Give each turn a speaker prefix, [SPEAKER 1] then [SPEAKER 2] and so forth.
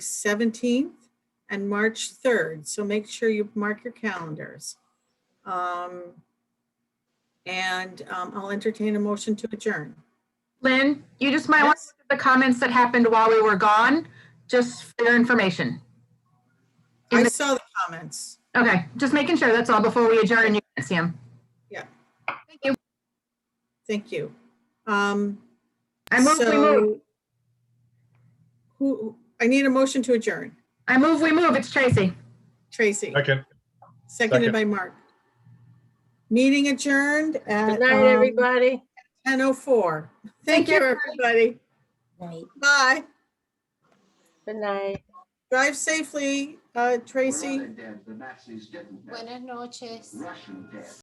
[SPEAKER 1] 17th and March 3rd. So make sure you mark your calendars. Um, And um, I'll entertain a motion to adjourn.
[SPEAKER 2] Lynn, you just might want
[SPEAKER 1] Yes?
[SPEAKER 2] the comments that happened while we were gone, just for your information.
[SPEAKER 1] I saw the comments.
[SPEAKER 2] Okay, just making sure, that's all, before we adjourn, you can see them.
[SPEAKER 1] Yeah.
[SPEAKER 2] Thank you.
[SPEAKER 1] Thank you. Um,
[SPEAKER 2] I move, we move,
[SPEAKER 1] so- Who, I need a motion to adjourn.
[SPEAKER 2] I move, we move, it's Tracy.
[SPEAKER 1] Tracy,
[SPEAKER 3] Second.
[SPEAKER 1] seconded
[SPEAKER 3] second.
[SPEAKER 1] by Mark. Meeting adjourned
[SPEAKER 4] Good
[SPEAKER 1] at
[SPEAKER 4] night,
[SPEAKER 1] um,
[SPEAKER 4] everybody.
[SPEAKER 1] 10:04. Thank
[SPEAKER 2] Thank
[SPEAKER 1] you,
[SPEAKER 2] you.
[SPEAKER 1] everybody.
[SPEAKER 5] Right.
[SPEAKER 1] Bye.
[SPEAKER 4] Good night.
[SPEAKER 1] Drive safely, uh, Tracy.
[SPEAKER 6] We're other dead. The Nazis didn't. dead.
[SPEAKER 5] Buenas noches.
[SPEAKER 6] Russian dead.